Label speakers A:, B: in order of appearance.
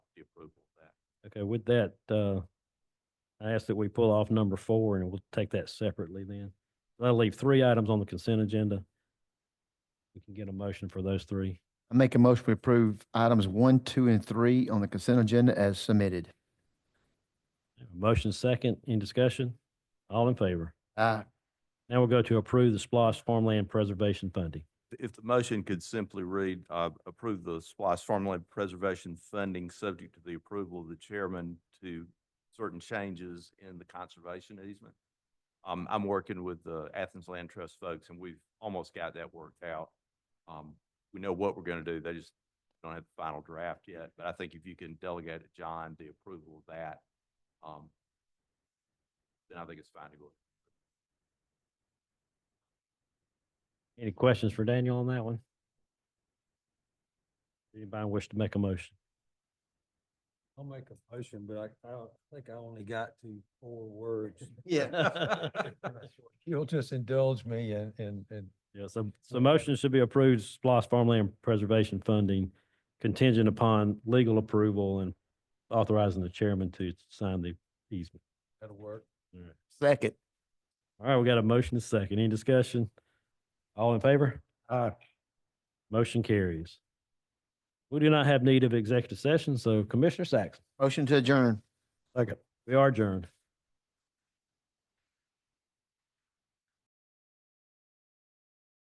A: Okay, with that, uh, I ask that we pull off number four and we'll take that separately then. That'll leave three items on the consent agenda. We can get a motion for those three.
B: I make a motion to approve items one, two, and three on the consent agenda as submitted.
A: Motion second, in discussion? All in favor?
B: Aye.
A: Now we'll go to approve the SPOS farmland preservation funding.
C: If the motion could simply read, uh, approve the Splice Farmland Preservation Funding subject to the approval of the chairman to certain changes in the conservation easement. Um, I'm working with the Athens Land Trust folks and we've almost got that worked out. Um, we know what we're gonna do. They just don't have the final draft yet, but I think if you can delegate to John the approval of that, um, then I think it's fine to go.
A: Any questions for Daniel on that one? Anybody wish to make a motion?
D: I'll make a motion, but I, I think I only got to four words. You'll just indulge me and, and, and
A: Yeah, so, so motion should be approved, SPOS farmland preservation funding contingent upon legal approval and authorizing the chairman to sign the easement.
D: that'll work.
B: Second.
A: All right, we got a motion and second. Any discussion? All in favor?
D: Aye.
A: Motion carries. We do not have need of executive session, so Commissioner Saxon,
B: Motion to adjourn.
A: we are adjourned.